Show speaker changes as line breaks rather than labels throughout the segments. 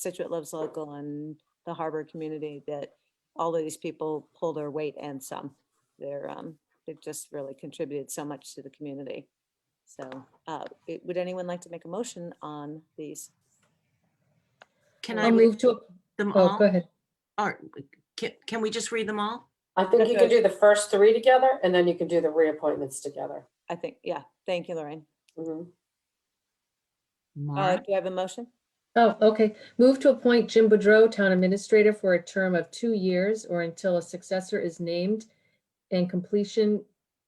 Situate Loves Local and the Harbor Community, that all of these people pull their weight and some. They're, um, they've just really contributed so much to the community. So, uh, it- would anyone like to make a motion on these?
Can
Or
I
I
read
move to,
them
oh,
all?
go ahead.
Or can, can we just read them all?
I think you
Okay.
can do the first three together and then you can do the reappointments together.
I think, yeah, thank you, Lorraine. Uh,
Mhm.
Mark,
do I have a motion?
Oh, okay. Move to appoint Jim Boudreau, Town Administrator, for a term of two years or until a successor is named and completion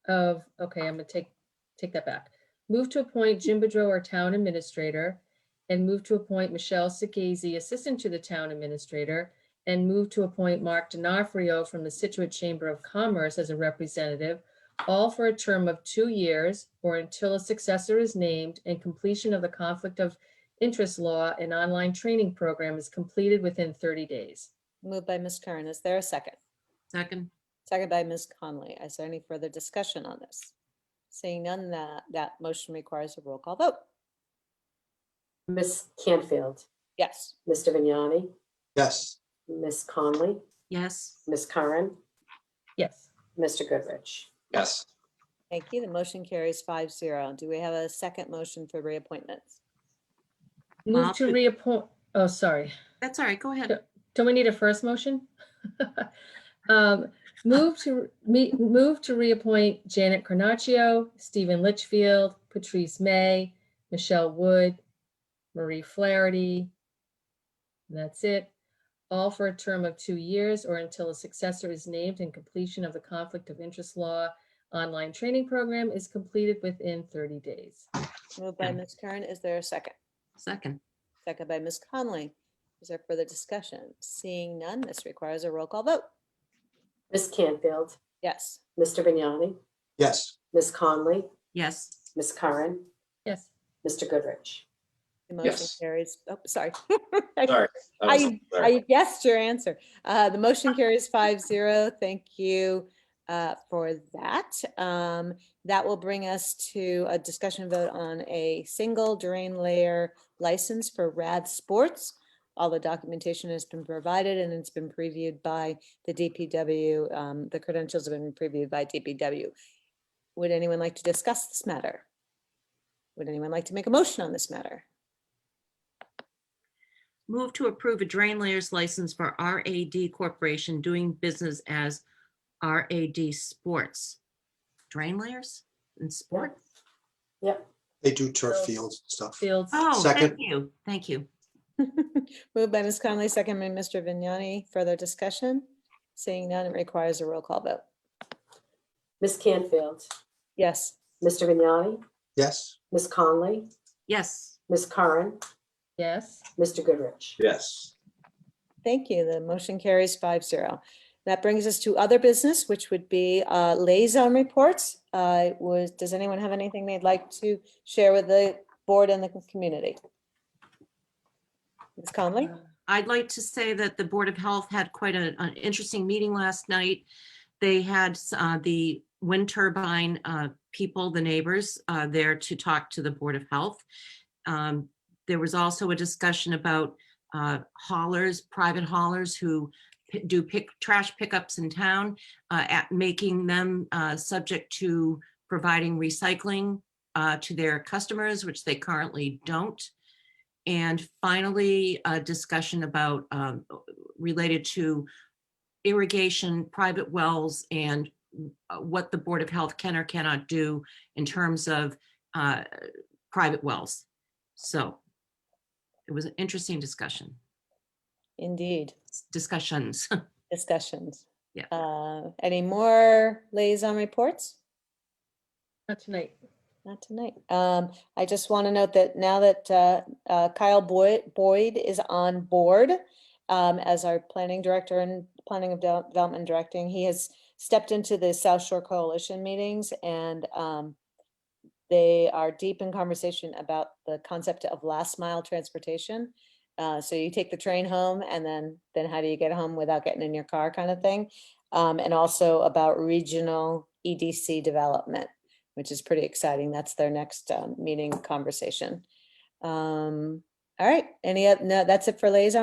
of, okay, I'm gonna take, take that back. Move to appoint Jim Boudreau, our Town Administrator, and move to appoint Michelle Sikazy, Assistant to the Town Administrator, and move to appoint Mark D'Onofrio from the Situate Chamber of Commerce as a representative, all for a term of two years or until a successor is named and completion of the conflict of interest law and online training program is completed within 30 days.
Moved by Ms. Curran. Is there a second?
second,
Second by Ms. Conley. Is there any further discussion on this? Seeing none, that, that motion requires a roll call vote.
Miss Canfield,
Yes.
Mr. Vignani,
yes,
Miss Conley,
yes,
Miss Curran,
Yes.
Mr. Goodrich.
yes.
Thank you. The motion carries five zero. Do we have a second motion for reappointments?
Move to
Option-
reappoint, oh, sorry.
that's all right, go ahead.
Don't we need a first motion? Um, Move to, me, move to reappoint Janet Carnaccio, Stephen Litchfield, Patrice May, Michelle Wood, Marie Flaherty. And That's it. All for a term of two years or until a successor is named and completion of the Conflict of Interest Law online training program is completed within 30 days.
Moved by
Yeah.
Mm.
Ms. Curran. Is there a second?
Second,
Second by Ms. Conley. Is there further discussion? Seeing none, this requires a roll call vote.
Miss Canfield,
Yes.
Mr. Vignani,
Yes,
Miss Conley,
yes,
Miss Curran,
Yes.
Mr. Goodrich.
The motion
Yes.
carries, oh, sorry.
Sorry, that was-
I,
sorry.
I guessed your answer. Uh, the motion carries five zero. Thank you, uh, for that. Um, that will bring us to a discussion vote on a single drain layer license for Rad Sports. All the documentation has been provided and it's been previewed by the DPW. Um, the credentials have been previewed by DPW. Would anyone like to discuss this matter? Would anyone like to make a motion on this matter?
move to approve a drain layers license for RAD Corporation doing business as RAD Sports. Drain layers and sport?
Yep,
they do turf
So-
fields and stuff.
Fields.
Oh, thank
Second.
you, thank you.
Moved by Ms. Conley, second by Mr. Vignani. Further discussion? Seeing none, it requires a roll call vote.
Miss Canfield,
Yes,
Mr. Vignani,
Yes,
Miss Conley,
Yes,
Miss Curran,
Yes.
Mr. Goodrich.
yes.
thank you. The motion carries five zero. That brings us to other business, which would be uh, liaison reports. Uh, Was, does anyone have anything they'd like to share with the board and the community? Ms. Conley?
I'd like to say that the Board of Health had quite a- an interesting meeting last night. They had uh, the wind turbine uh, people, the neighbors, uh, there to talk to the Board of Health. Um, There was also a discussion about uh, haulers, private haulers who pi- do pick, trash pickups in town, uh, at making them uh, subject to providing recycling uh, to their customers, which they currently don't. And finally, a discussion about um, related to irrigation, private wells, and uh, what the Board of Health can or cannot do in terms of uh, private wells. So it was an interesting discussion,
Indeed,
discussions.
discussions.
Yeah.
Uh, Any more liaison reports?
Not tonight.
Not tonight. Um, I just want to note that now that, uh, uh, Kyle Boyd, Boyd is on board, um, as our planning director and planning of Devel- development directing, he has stepped into the South Shore Coalition meetings and, um, they are deep in conversation about the concept of last mile transportation. Uh, so you take the train home and then, then how do you get home without getting in your car kind of thing? Um, and also about regional EDC development which is pretty exciting. That's their next um, meeting conversation. Um, All right, any, oth- no, that's it for liaison